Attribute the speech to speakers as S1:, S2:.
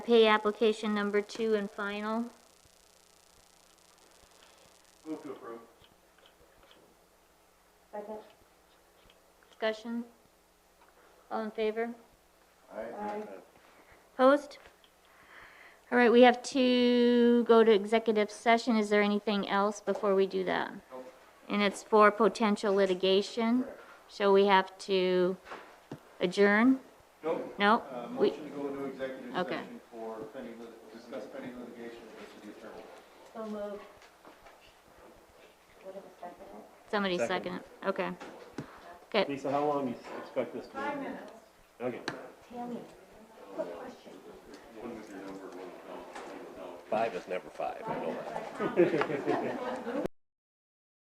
S1: Pay application number two and final.
S2: Move to approve.
S3: Second.
S1: Discussion? All in favor?
S3: Aye.
S1: Opposed? All right, we have to go to executive session. Is there anything else before we do that?
S2: Nope.
S1: And it's for potential litigation, so we have to adjourn?
S2: Nope.
S1: No?
S2: Uh,
S1: We,
S2: motion to go into executive
S1: Okay.
S2: session for pending, lit- discuss pending litigation with the city attorney.
S3: So moved. What is the second?
S1: somebody
S4: Second.
S1: second it, okay. Okay,
S4: Lisa, how long do you expect this to be? Five minutes. Okay.
S3: Tammy, quick question.
S4: Five is never five, I know that.